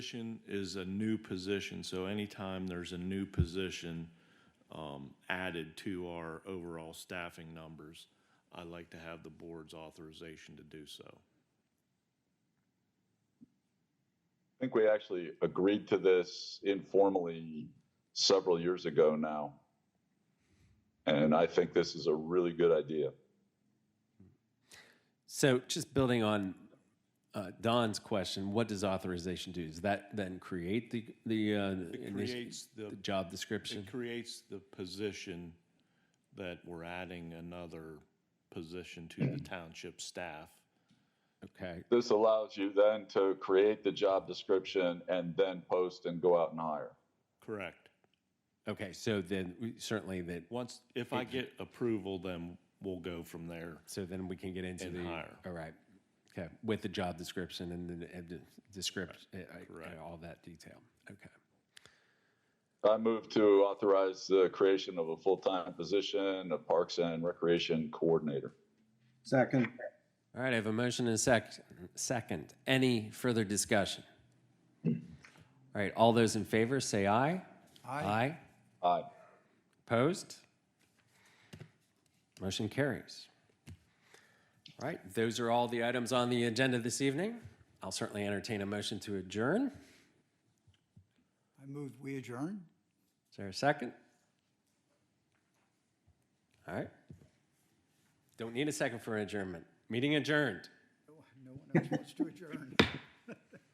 Position is a new position, so anytime there's a new position um, added to our overall staffing numbers, I'd like to have the board's authorization to do so. I think we actually agreed to this informally several years ago now. And I think this is a really good idea. So just building on uh, Don's question, what does authorization do? Does that then create the the, uh, It initi- creates the, the job description? it creates the position that we're adding another position to the township staff. Okay, This allows you then to create the job description and then post and go out and hire. Correct. okay. So then we, certainly that. Once, if I get approval, then we'll go from there. So then we can get into And the hire. all right. Okay, with the job description and then and the description, Correct. all that detail. Okay. I move to authorize the creation of a full-time position of Parks and Recreation Coordinator. Second. All right. I have a motion and a sec- second. Any further discussion? All right. All those in favor, say aye. Aye. Aye. Aye. Opposed? Motion carries. All right, those are all the items on the agenda this evening. I'll certainly entertain a motion to adjourn. I moved, we adjourn? Is there a second? All right. Don't need a second for adjournment. Meeting adjourned. No one else wants to adjourn.